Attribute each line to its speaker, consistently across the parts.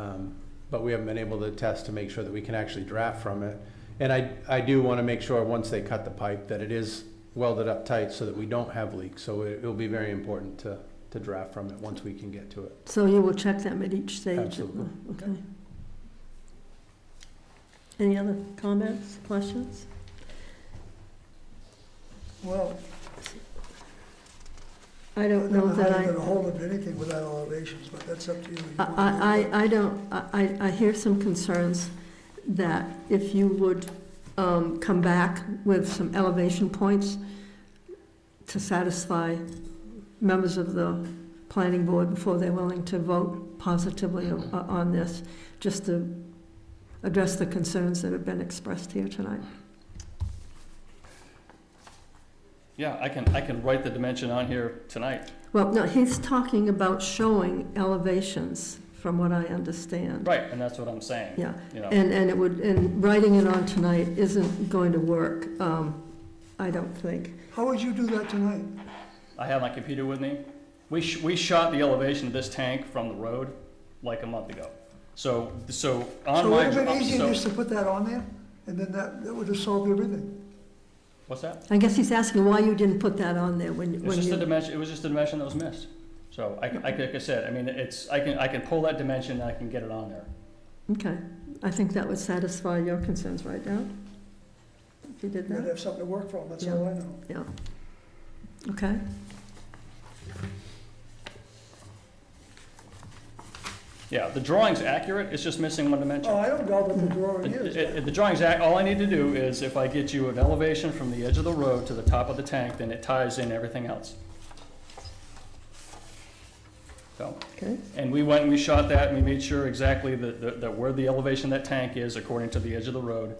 Speaker 1: Um, but we haven't been able to test to make sure that we can actually draft from it. And I, I do want to make sure, once they cut the pipe, that it is welded up tight so that we don't have leaks. So it will be very important to, to draft from it once we can get to it.
Speaker 2: So you will check them at each stage?
Speaker 1: Absolutely.
Speaker 2: Okay. Any other comments, questions?
Speaker 3: Well,
Speaker 2: I
Speaker 3: I
Speaker 2: don't know
Speaker 3: don't know
Speaker 2: that
Speaker 3: how you're
Speaker 2: I,
Speaker 3: gonna hold up anything without elevations, but that's up to you. You wanna do
Speaker 2: I,
Speaker 3: that.
Speaker 2: I, I don't, I, I- I hear some concerns that if you would um, come back with some elevation points to satisfy members of the planning board before they're willing to vote positively o- on this, just to address the concerns that have been expressed here tonight.
Speaker 4: Yeah, I can, I can write the dimension on here tonight.
Speaker 2: Well, no, he's talking about showing elevations, from what I understand.
Speaker 4: Right, and that's what I'm saying,
Speaker 2: Yeah,
Speaker 4: you know.
Speaker 2: and, and it would, and writing it on tonight isn't going to work, um, I don't think.
Speaker 3: How would you do that tonight?
Speaker 4: I have my computer with me. We, sh- we shot the elevation of this tank from the road like a month ago. So, so on
Speaker 3: So
Speaker 4: my.
Speaker 3: would it have been easier
Speaker 4: so-
Speaker 3: just to put that on there, and then that, that would have solved everything.
Speaker 4: What's that?
Speaker 2: I guess he's asking why you didn't put that on there when,
Speaker 4: It's
Speaker 2: when
Speaker 4: just a
Speaker 2: you,
Speaker 4: dimension, it was just a dimension that was missed. So I, can- I, can- like I said, I mean, it's, I can, I can pull that dimension and I can get it on there.
Speaker 2: okay. I think that would satisfy your concerns right now, if you did
Speaker 3: You'd
Speaker 2: that,
Speaker 3: have something to work from, that's all I know.
Speaker 2: okay?
Speaker 4: Yeah, the drawing's accurate, it's just missing one dimension.
Speaker 3: Oh, I don't know what the drawing
Speaker 4: It-
Speaker 3: is.
Speaker 4: it- it- The drawing's, ac- all I need to do is if I get you an elevation from the edge of the road to the top of the tank, then it ties in everything else. So,
Speaker 2: Okay.
Speaker 4: and we went and we shot that and we made sure exactly that, that that where the elevation of that tank is according to the edge of the road.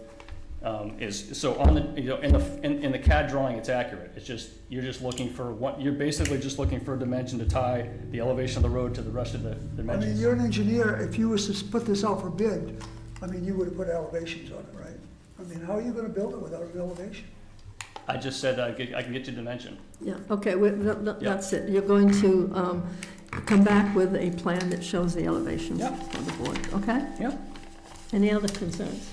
Speaker 4: um, Is, so on the, you know, in the, in, in the CAD drawing, it's accurate. It's just, you're just looking for what, you're basically just looking for a dimension to tie the elevation of the road to the rest of
Speaker 3: I
Speaker 4: the
Speaker 3: mean,
Speaker 4: dimensions.
Speaker 3: you're an engineer, if you was to s- put this out for bid, I mean, you would have put elevations on it, right? I mean, how are you gonna build it without an elevation?
Speaker 4: I just said I could, I can get you dimension.
Speaker 2: Yeah, okay, we- th- th-
Speaker 4: Yeah.
Speaker 2: that's it. You're going to um, come back with a plan that shows the elevations
Speaker 4: Yeah.
Speaker 2: for the board, okay?
Speaker 4: Yeah.
Speaker 2: Any other concerns?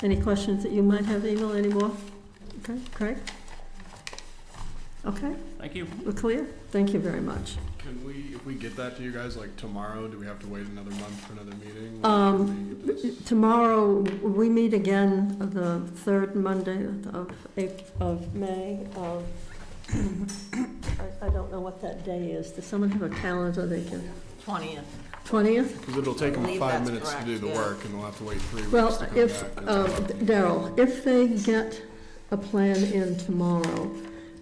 Speaker 2: Any questions that you might have, Emil, anymore? Okay, Craig? Okay,
Speaker 4: Thank you.
Speaker 2: we're clear? Thank you very much.
Speaker 5: Can we, if we get that to you guys like tomorrow, do we have to wait another month for another meeting?
Speaker 2: Um, Tomorrow, we meet again the third Monday of, Ap- of May. of- I- I don't know what that day is. Does someone have a calendar they can,
Speaker 6: Twentieth.
Speaker 2: 20th?
Speaker 5: Because it'll take
Speaker 6: I
Speaker 5: them
Speaker 6: believe
Speaker 5: five
Speaker 6: that's
Speaker 5: minutes to
Speaker 6: correct,
Speaker 5: do the
Speaker 6: yeah.
Speaker 5: work and we'll have to wait three weeks
Speaker 2: Well,
Speaker 5: to come back.
Speaker 2: if, uh,
Speaker 5: That's-
Speaker 2: Daryl, if they get a plan in tomorrow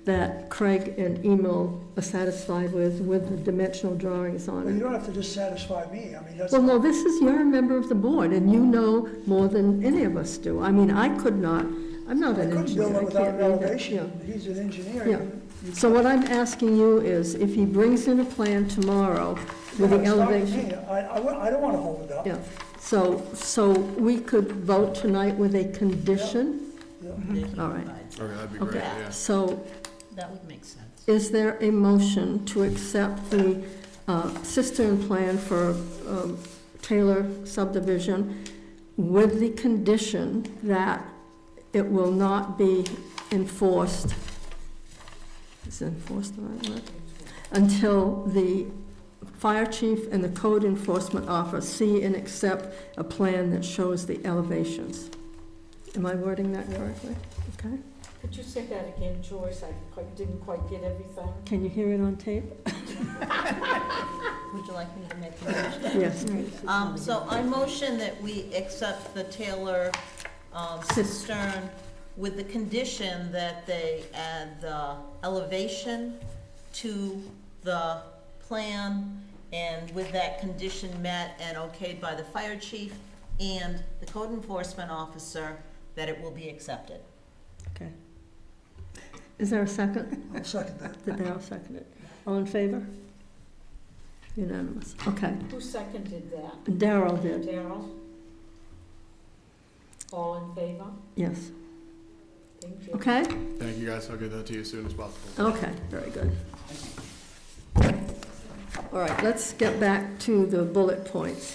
Speaker 2: that Craig and Emil are satisfied with, with the dimensional drawings
Speaker 3: Well, you
Speaker 2: on it.
Speaker 3: don't have to just satisfy me, I mean, that's.
Speaker 2: Well, no, this is, you're a member of the board, and you know more than any of us do. I mean, I could not, I'm not
Speaker 3: I
Speaker 2: an
Speaker 3: couldn't
Speaker 2: engineer.
Speaker 3: build
Speaker 2: I
Speaker 3: it without
Speaker 2: can't
Speaker 3: an
Speaker 2: read that, yeah.
Speaker 3: elevation, he's an engineer.
Speaker 2: Yeah.
Speaker 3: You-
Speaker 2: So what I'm asking you is, if he brings in a plan tomorrow with the
Speaker 3: It's not me.
Speaker 2: elevation.
Speaker 3: I, I wa- I don't wanna hold it up.
Speaker 2: Yeah, so, so we could vote tonight with a condition?
Speaker 3: Yeah.
Speaker 2: All right.
Speaker 5: Okay, that'd be great,
Speaker 2: Okay,
Speaker 5: yeah.
Speaker 2: so
Speaker 6: That would make sense.
Speaker 2: Is there a motion to accept the uh, cistern plan for um, Taylor subdivision with the condition that it will not be enforced, is enforced the right word? Until the fire chief and the code enforcement officer see and accept a plan that shows the elevations. Am I wording that correctly? Okay,
Speaker 6: Could you say that again, Joyce? I quite- didn't quite get everything.
Speaker 2: can you hear it on tape?
Speaker 7: Would you like me to make a motion?
Speaker 2: Yes.
Speaker 7: Um, so I motion that we accept the Taylor um, cistern with the condition that they add the elevation to the plan, and with that condition met and okayed by the fire chief and the code enforcement officer, that it will be accepted.
Speaker 2: Okay. Is there a second?
Speaker 3: I'll second that.
Speaker 2: Did Darrell second it? All in favor? Unanimous. Okay.
Speaker 6: Who seconded that?
Speaker 2: Darrell did,
Speaker 6: Daryl? All in favor?
Speaker 2: yes.
Speaker 6: Thank you.
Speaker 2: Okay?
Speaker 5: Thank you guys, I'll get that to you as soon as possible.
Speaker 2: Okay, very good. All right, let's get back to the bullet points